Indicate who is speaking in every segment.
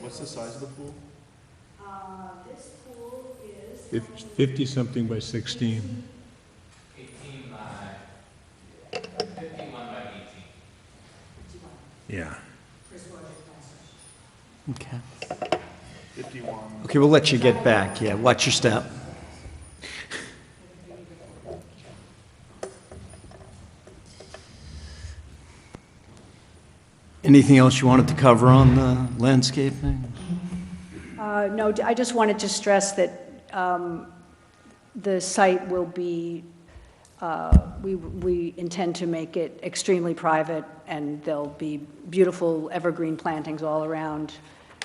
Speaker 1: What's the size of the pool?
Speaker 2: Uh, this pool is. how many-
Speaker 3: 50-something by 16.
Speaker 4: 18 by, 51 by 18.
Speaker 2: Fifty-one,
Speaker 3: Yeah.
Speaker 2: Chris Rogers, Pastor.
Speaker 5: Okay.
Speaker 1: Fifty-one.
Speaker 5: Okay, we'll let you get back. Yeah, watch your step. Anything else you wanted to cover on the landscaping?
Speaker 2: Uh, No, I just wanted to stress that um, the site will be, uh, we we intend to make it extremely private, and there'll be beautiful evergreen plantings all around,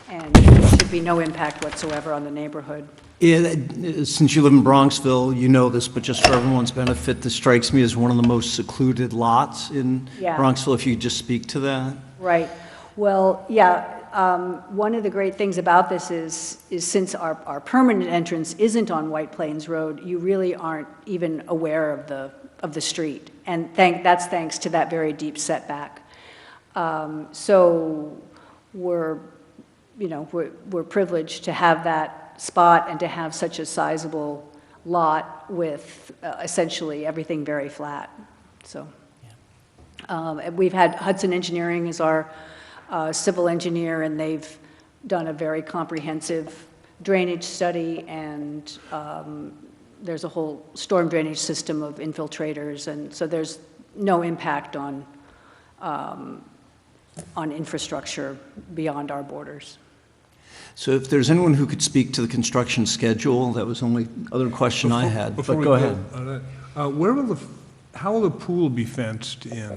Speaker 2: and there should be no impact whatsoever on the neighborhood.
Speaker 5: Yeah, that- Since you live in Bronxville, you know this, but just for everyone's benefit, this strikes me as one of the most secluded lots in
Speaker 2: Yeah.
Speaker 5: Bronxville, if you could just speak to that.
Speaker 2: Right. Well, yeah, um, one of the great things about this is, is since our, our permanent entrance isn't on White Plains Road, you really aren't even aware of the, of the street. And thank, that's thanks to that very deep setback. Um, So we're, you know, we're, we're privileged to have that spot and to have such a sizable lot with uh, essentially everything very flat, so. Um, and We've had Hudson Engineering as our uh, civil engineer, and they've done a very comprehensive drainage study, and um, there's a whole storm drainage system of infiltrators, and so there's no impact on, um, on infrastructure beyond our borders.
Speaker 5: So if there's anyone who could speak to the construction schedule, that was the only other question I had, but
Speaker 3: Before we
Speaker 5: go ahead.
Speaker 3: all right. Uh, Where will the, f- how will the pool be fenced in?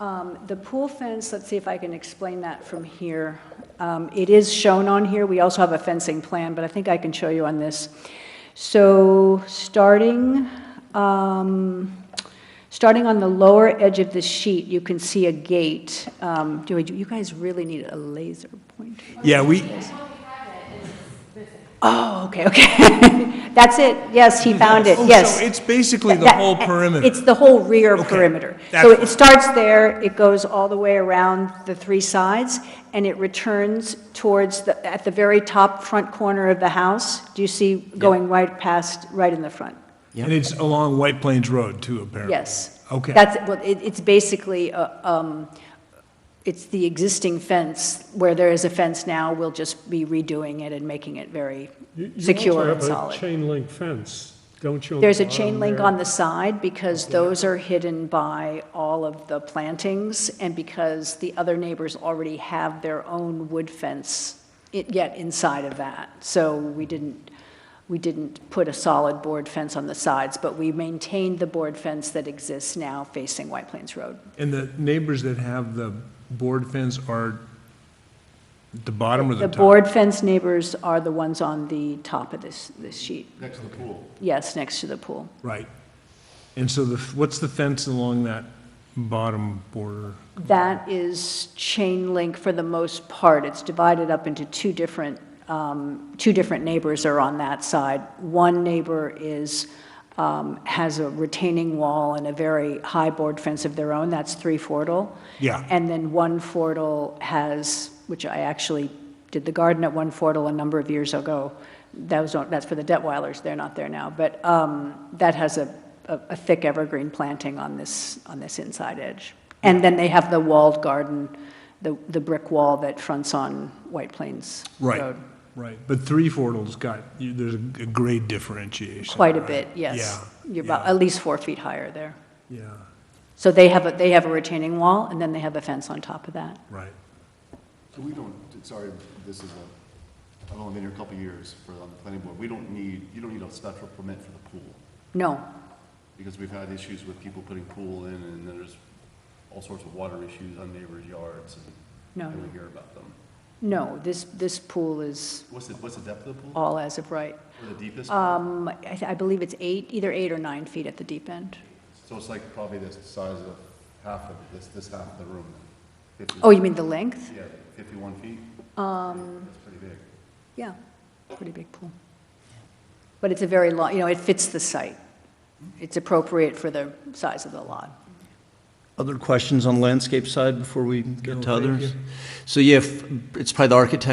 Speaker 2: Um, The pool fence, let's see if I can explain that from here. Um, It is shown on here, we also have a fencing plan, but I think I can show you on this. So, starting, um, starting on the lower edge of the sheet, you can see a gate. Um, Do I- do you guys really need a laser pointer?
Speaker 3: Yeah, we,
Speaker 2: Oh, okay, okay. That's it, yes, he found it,
Speaker 3: Oh,
Speaker 2: yes.
Speaker 3: so it's basically the
Speaker 2: That-
Speaker 3: whole perimeter.
Speaker 2: eh, It's the whole rear
Speaker 3: Okay,
Speaker 2: perimeter.
Speaker 3: that's
Speaker 2: So
Speaker 3: fine.
Speaker 2: it starts there, it goes all the way around the three sides, and it returns towards the, at the very top front corner of the house. Do you see going right past, right in the front?
Speaker 3: and it's along White Plains Road too, apparently.
Speaker 2: Yes.
Speaker 3: Okay.
Speaker 2: That's, well, it, it's basically, uh, um, it's the existing fence, where there is a fence now, we'll just be redoing it and making it very secure and
Speaker 6: You also have a
Speaker 2: solid.
Speaker 6: chain link fence, don't you? on the
Speaker 2: There's a
Speaker 6: bottom
Speaker 2: chain link
Speaker 6: there?
Speaker 2: on the side because those are hidden by all of the plantings and because the other neighbors already have their own wood fence i- yet inside of that. So we didn't, we didn't put a solid board fence on the sides, but we maintained the board fence that exists now facing White Plains Road.
Speaker 3: And the neighbors that have the board fence are the bottom or the
Speaker 2: The
Speaker 3: top?
Speaker 2: board fence neighbors are the ones on the top of this, this sheet.
Speaker 1: Next to the pool.
Speaker 2: Yes, next to the pool.
Speaker 3: Right. And so the, f- what's the fence along that bottom border?
Speaker 2: That is chain link for the most part. It's divided up into two different, um, two different neighbors are on that side. One neighbor is, um, has a retaining wall and a very high board fence of their own, that's three-fortile.
Speaker 3: Yeah.
Speaker 2: And then one fortile has, which I actually did the garden at one fortile a number of years ago. That was, on- that's for the Detweilers, they're not there now, but um, that has a, a a thick evergreen planting on this, on this inside edge. And then they have the walled garden, the, the brick wall that fronts on White Plains
Speaker 3: Right,
Speaker 2: Road.
Speaker 3: right. But three fortals got, you- there's a a grade differentiation.
Speaker 2: Quite a
Speaker 3: right?
Speaker 2: bit, yes.
Speaker 3: Yeah,
Speaker 2: You're about,
Speaker 3: yeah,
Speaker 2: at least four feet higher there.
Speaker 3: Yeah,
Speaker 2: So they have, a they have a retaining wall, and then they have a fence on top of that.
Speaker 3: right.
Speaker 1: So we don't, sorry, this is a, I've only been here a couple of years for, on the planning board. We don't need, you don't need a special permit for the pool.
Speaker 2: No,
Speaker 1: Because we've had issues with people putting pool in and then there's all sorts of water issues on neighbors' yards and,
Speaker 2: No.
Speaker 1: and we hear about them.
Speaker 2: no, this, this pool is
Speaker 1: What's the, what's the depth of the pool?
Speaker 2: all as of right.
Speaker 1: Or the deepest? pool?
Speaker 2: Um, I th- I believe it's eight, either eight or nine feet at the deep end.
Speaker 1: So it's like probably the size of half of, this, this half of the room then? 50
Speaker 2: Oh, you mean the length?
Speaker 1: Yeah, fifty-one feet? Um. That's pretty big.
Speaker 2: Yeah, pretty big pool. But it's a very long, you know, it fits the site. It's appropriate for the size of the lot.
Speaker 5: Other questions on landscape side before we get
Speaker 3: No,
Speaker 5: to
Speaker 3: thank
Speaker 5: others?
Speaker 3: you.
Speaker 5: So yeah, f- it's probably the architect